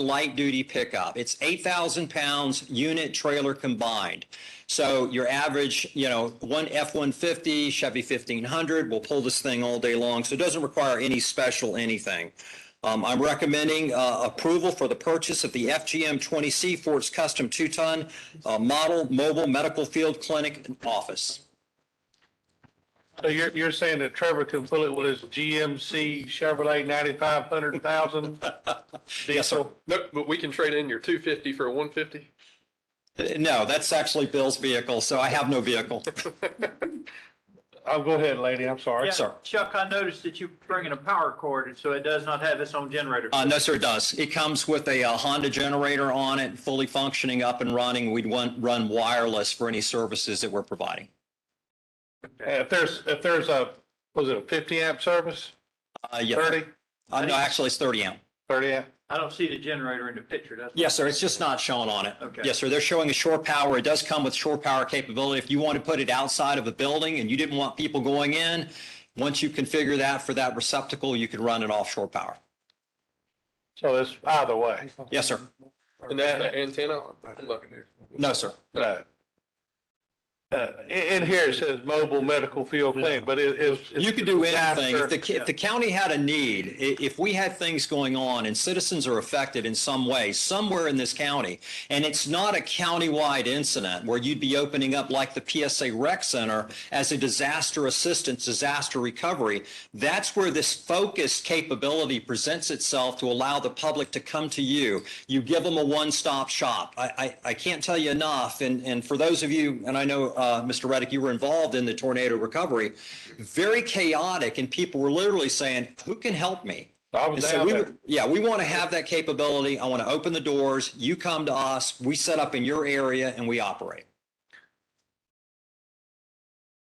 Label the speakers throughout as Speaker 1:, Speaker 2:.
Speaker 1: light duty pickup. It's 8,000 pounds unit trailer combined. So your average, you know, one F-150 Chevy 1500 will pull this thing all day long. So it doesn't require any special anything. Um, I'm recommending, uh, approval for the purchase of the FGM 20C Ford's custom two-ton, uh, model mobile medical field clinic office.
Speaker 2: So you're, you're saying that Trevor can fill it with his GMC Chevrolet ninety-five hundred thousand?
Speaker 1: Yes, sir.
Speaker 3: No, but we can trade in your two fifty for a one fifty.
Speaker 1: Uh, No, that's actually Bill's vehicle, so I have no vehicle.
Speaker 2: Oh, go ahead, lady, I'm sorry.
Speaker 4: Yeah,
Speaker 1: sir.
Speaker 4: Chuck, I noticed that you're bringing a power cord, so it does not have its own generator.
Speaker 1: Uh, no, sir, it does. It comes with a uh, Honda generator on it, fully functioning, up and running. We'd want, run wireless for any services that we're providing.
Speaker 2: Uh, If there's, if there's a, was it a fifty amp service?
Speaker 1: Uh, yeah.
Speaker 2: Thirty?
Speaker 1: Uh, no, actually, it's 30 amp.
Speaker 2: Thirty amp?
Speaker 4: I don't see the generator in the picture, does it?
Speaker 1: Yes, sir. It's just not shown on it.
Speaker 4: Okay.
Speaker 1: Yes, sir. They're showing a shore power. It does come with shore power capability. If you want to put it outside of a building and you didn't want people going in, once you configure that for that receptacle, you can run an offshore power.
Speaker 2: So it's either way.
Speaker 1: Yes, sir.
Speaker 3: And that's an antenna? Look,
Speaker 1: No, sir.
Speaker 2: No. Uh, in, in here it says mobile medical field clinic, but it is.
Speaker 1: You could do anything. If the,
Speaker 2: Disaster.
Speaker 1: ca- if the county had a need, i- if we had things going on and citizens are affected in some way, somewhere in this county, and it's not a countywide incident where you'd be opening up like the PSA Rec Center as a disaster assistance, disaster recovery, that's where this focused capability presents itself to allow the public to come to you. You give them a one-stop shop. I, I, I can't tell you enough. And, and for those of you, and I know, uh, Mr. Reddick, you were involved in the tornado recovery, very chaotic and people were literally saying, who can help me?
Speaker 2: I
Speaker 1: And
Speaker 2: was
Speaker 1: so
Speaker 2: down
Speaker 1: we,
Speaker 2: there.
Speaker 1: were- yeah, we want to have that capability. I want to open the doors. You come to us, we set up in your area and we operate.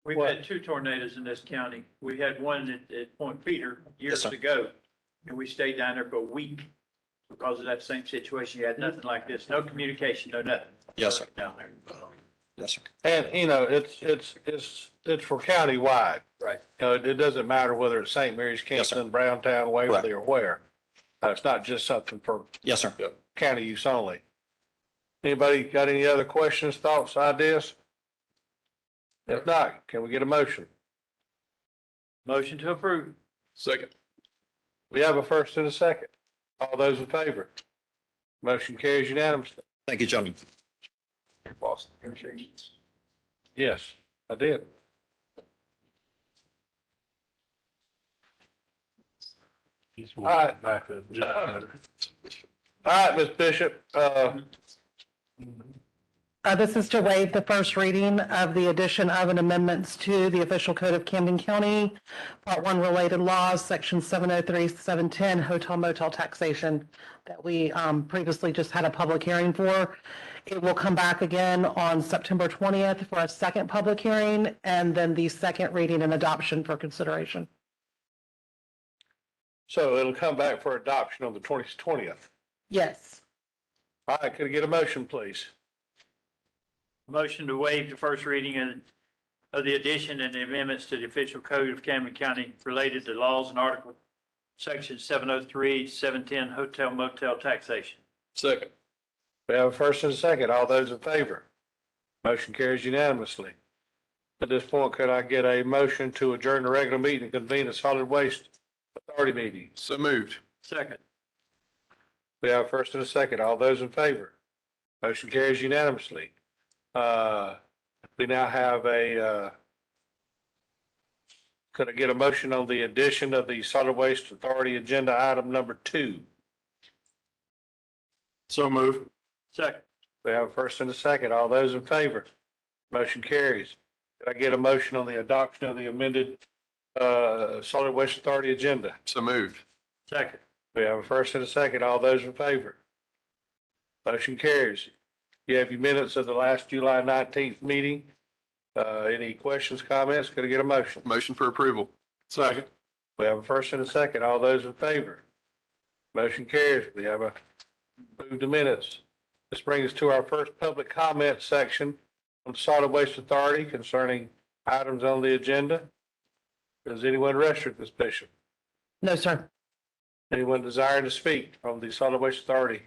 Speaker 4: We've
Speaker 2: What?
Speaker 4: had two tornadoes in this county. We had one at, at Point Peter years
Speaker 1: sir.
Speaker 4: ago, and we stayed down there for a week because of that same situation. You had nothing like this, no communication, no nothing.
Speaker 1: Yes, sir.
Speaker 4: Down there.
Speaker 1: Yes, sir.
Speaker 2: And, you know, it's, it's, it's, it's for countywide.
Speaker 4: Right.
Speaker 2: You know, it, it doesn't matter whether it's St. Mary's,
Speaker 1: Yes, sir.
Speaker 2: Kingston, Browntown, Waverly, or where. Uh, It's not just something for
Speaker 1: Yes, sir.
Speaker 2: county use only. Anybody got any other questions, thoughts, ideas? If not, can we get a motion?
Speaker 4: Motion to approve.
Speaker 3: second.
Speaker 2: We have a first and a second. All those in favor? Motion carries unanimously.
Speaker 1: Thank you, gentlemen.
Speaker 2: Yes, I did. All right. All right, Ms. Bishop, uh,
Speaker 5: Uh, This is to waive the first reading of the addition of and amendments to the official code of Camden County, Part 1 related laws, Section 703, 710, hotel motel taxation that we um, previously just had a public hearing for. It will come back again on September 20th for a second public hearing and then the second reading and adoption for consideration.
Speaker 2: so it'll come back for adoption on the twentieth.
Speaker 5: Yes.
Speaker 2: All right, could I get a motion, please?
Speaker 4: Motion to waive the first reading and of the addition and amendments to the official code of Camden County related to laws and article section 703, 710 hotel motel taxation.
Speaker 3: Second.
Speaker 2: We have a first and a second. All those in favor? Motion carries unanimously. At this point, could I get a motion to adjourn the regular meeting and convene a solid waste authority meeting?
Speaker 3: So moved.
Speaker 4: Second.
Speaker 2: We have a first and a second. All those in favor? Motion carries unanimously. Uh, we now have a, uh, could I get a motion on the addition of the solid waste authority agenda item number two?
Speaker 3: So moved.
Speaker 4: Second.
Speaker 2: We have a first and a second. All those in favor? Motion carries. Did I get a motion on the adoption of the amended uh, solid waste authority agenda?
Speaker 3: So moved.
Speaker 4: Second.
Speaker 2: We have a first and a second. All those in favor? Motion carries. You have your minutes of the last July nineteenth meeting. Uh, Any questions, comments? Could I get a motion?
Speaker 3: Motion for approval. Second.
Speaker 2: We have a first and a second. All those in favor? Motion carries. We have a move to minutes. This brings us to our first public comment section on solid waste authority concerning items on the agenda. Does anyone register this, Bishop?
Speaker 5: No, sir.
Speaker 2: Anyone desiring to speak on the solid waste authority